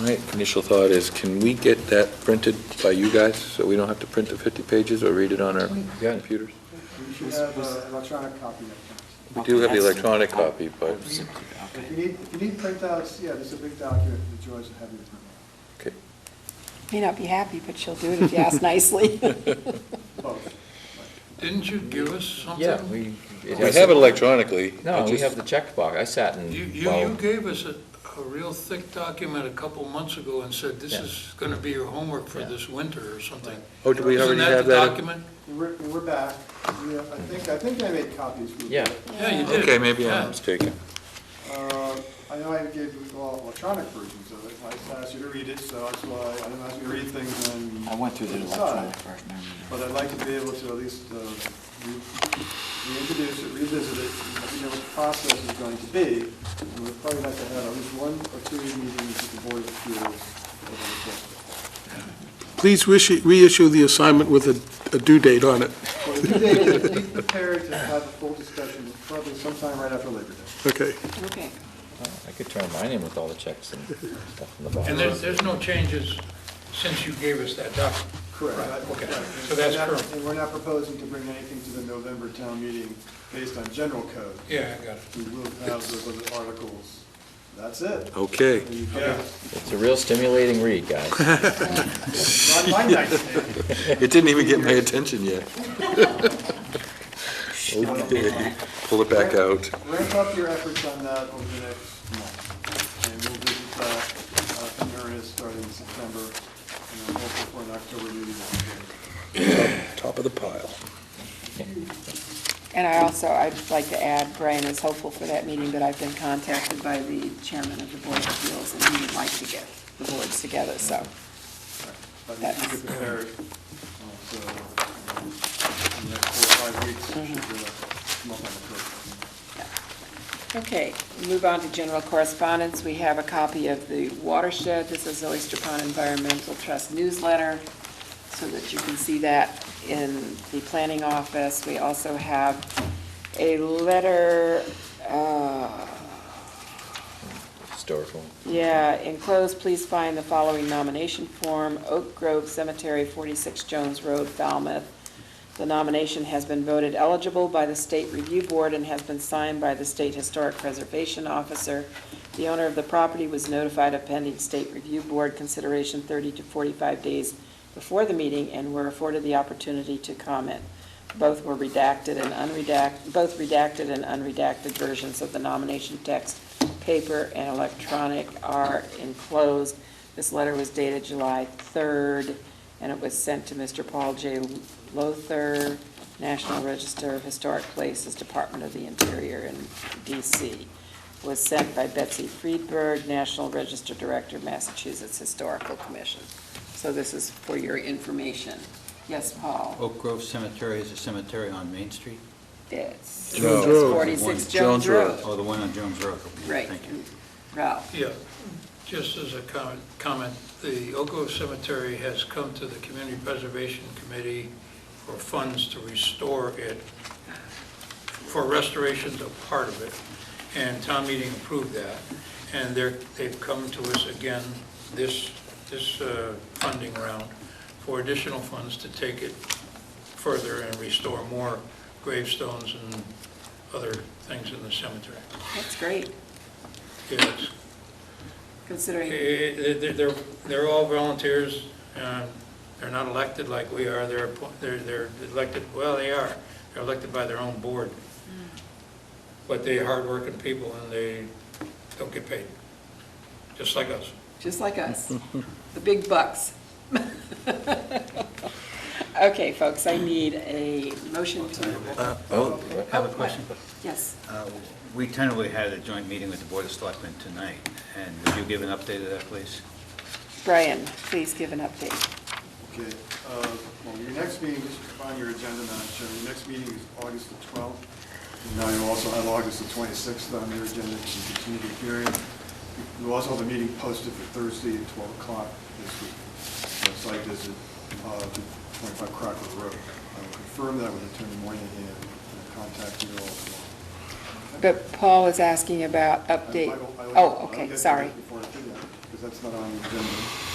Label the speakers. Speaker 1: My initial thought is, can we get that printed by you guys, so we don't have to print the 50 pages or read it on our
Speaker 2: Yeah.
Speaker 1: computers?
Speaker 3: You should have an electronic copy of
Speaker 1: We do have the
Speaker 2: Okay, that's-
Speaker 1: electronic uh, copy, but,
Speaker 3: it. If you
Speaker 2: Okay.
Speaker 3: need, if you need printouts, yeah, there's a big document that Joyce will have you print
Speaker 1: okay.
Speaker 4: May not be happy, but she'll do it if you ask nicely.
Speaker 3: out. Both.
Speaker 5: Didn't you give us something?
Speaker 2: Yeah, we.
Speaker 1: We
Speaker 2: it has-
Speaker 1: have it electronically. I
Speaker 2: No, we
Speaker 1: just-
Speaker 2: have the checkbox. I sat and,
Speaker 5: You, you, you
Speaker 2: well,
Speaker 5: gave us a, a real thick document a couple months ago and said this
Speaker 2: Yeah.
Speaker 5: is gonna be your homework for
Speaker 2: Yeah.
Speaker 5: this winter or something.
Speaker 1: Oh, do we
Speaker 5: Isn't
Speaker 1: already
Speaker 5: that
Speaker 1: have
Speaker 5: the
Speaker 1: that? in-
Speaker 5: document?
Speaker 3: We're, we're back. We have- I think, I think I made copies. for you.
Speaker 2: yeah,
Speaker 5: Yeah, you did.
Speaker 1: Okay, maybe
Speaker 5: Yeah.
Speaker 1: I'm mistaken.
Speaker 3: Uh, I know I gave you all electronic versions of it. I asked you to read it, so that's why I didn't ask you to read things and.
Speaker 6: I went through the
Speaker 3: decide.
Speaker 6: electronic version, I remember.
Speaker 3: But I'd like to be able to at least uh, re- reintroduce it, revisit it, and let you know what the process is going to be. And we'd probably like to have at least one or two meetings with the Board of Appeals over the course of it.
Speaker 7: Please reissue- reissue the assignment with a- a due date on it.
Speaker 3: Well, the due date is be prepared to have a full discussion probably sometime right after Labor Day.
Speaker 7: Okay.
Speaker 4: Okay.
Speaker 2: I could turn mine in with all the checks and stuff in the
Speaker 5: And
Speaker 2: box.
Speaker 5: there's, there's no changes since you gave us that document.
Speaker 3: Correct.
Speaker 5: okay. So that's current.
Speaker 3: And we're not proposing to bring anything to the November town meeting based on general code.
Speaker 5: Yeah, I got it.
Speaker 3: We will have those other articles. That's it.
Speaker 1: Okay.
Speaker 3: And you can-
Speaker 5: Yeah.
Speaker 2: It's a real stimulating read, guys.
Speaker 3: Not my night.
Speaker 1: It didn't even get my attention yet. Okay, pull it back out.
Speaker 3: Ramp up your efforts on that over the next month, and we'll visit that uh, in areas starting in September, and then hopefully for an October meeting.
Speaker 1: Top of the pile.
Speaker 4: And I also, I'd like to add, Brian is hopeful for that meeting, but I've been contacted by the chairman of the Board of Appeals, and he would like to get the boards together, so.
Speaker 3: But if you get prepared, uh, so, um, in the next four or five weeks, you should be able to come up on the curve.
Speaker 4: Okay, move on to general correspondence. We have a copy of the watershed. This is Oyster Pond Environmental Trust newsletter, so that you can see that in the planning office. We also have a letter, uh,
Speaker 2: Historical.
Speaker 4: Yeah, enclosed, please find the following nomination form, Oak Grove Cemetery, 46 Jones Road, Falmouth. The nomination has been voted eligible by the State Review Board and has been signed by the State Historic Preservation Officer. The owner of the property was notified of pending State Review Board consideration 30 to 45 days before the meeting and were afforded the opportunity to comment. Both were redacted and unredacted, both redacted and unredacted versions of the nomination text, paper and electronic, are enclosed. This letter was dated July 3rd, and it was sent to Mr. Paul J. Lothar, National Register of Historic Places, Department of the Interior in DC. Was sent by Betsy Friedberg, National Register Director, Massachusetts Historical Commission. So this is for your information. Yes, Paul?
Speaker 6: Oak Grove Cemetery is a cemetery on Main Street?
Speaker 4: It's
Speaker 1: Jones
Speaker 7: Road.
Speaker 4: 46
Speaker 1: Jones
Speaker 4: Jones Road.
Speaker 6: Oh, the one on Jones Road. Okay,
Speaker 4: Right.
Speaker 6: Thank you.
Speaker 4: Ralph,
Speaker 5: Yeah, just as a comment, comment, the Oak Grove Cemetery has come to the Community Preservation Committee for funds to restore it, for restoration to part of it, and town meeting approved that. And they're, they've come to us again this, this uh, funding round for additional funds to take it further and restore more gravestones and other things in the cemetery.
Speaker 4: that's great,
Speaker 5: Yes.
Speaker 4: considering,
Speaker 5: Eh, eh, They're, they're- they're all volunteers, um, they're not elected like we are, they're, appo- they're they're elected, well, they are, they're elected by their own board. But they're hardworking people and they don't get paid, just like us.
Speaker 4: just like us, the big bucks. Okay, folks, I need a motion to,
Speaker 1: Oh,
Speaker 6: I have a question.
Speaker 4: yes,
Speaker 6: Uh, We tentatively had a joint meeting with the Board of Selectmen tonight, and would you give an update of that, please?
Speaker 4: Brian, please give an update.
Speaker 3: Okay, uh, well, your next meeting, just on your agenda, Madam Chair, your next meeting is August the 12th. And now you also have August the 26th on your agenda, which is the community hearing. You also have a meeting posted for Thursday at 12 o'clock this week. The site visit, uh, to 25 Crocker Road. I will confirm that with Attorney Moynihan and contact you all tomorrow.
Speaker 4: But Paul is asking about
Speaker 3: I- I
Speaker 4: update.
Speaker 3: will- I will-
Speaker 4: Oh,
Speaker 3: I'll get
Speaker 4: okay,
Speaker 3: to
Speaker 4: sorry.
Speaker 3: that Before I do that, because because that's not on the agenda.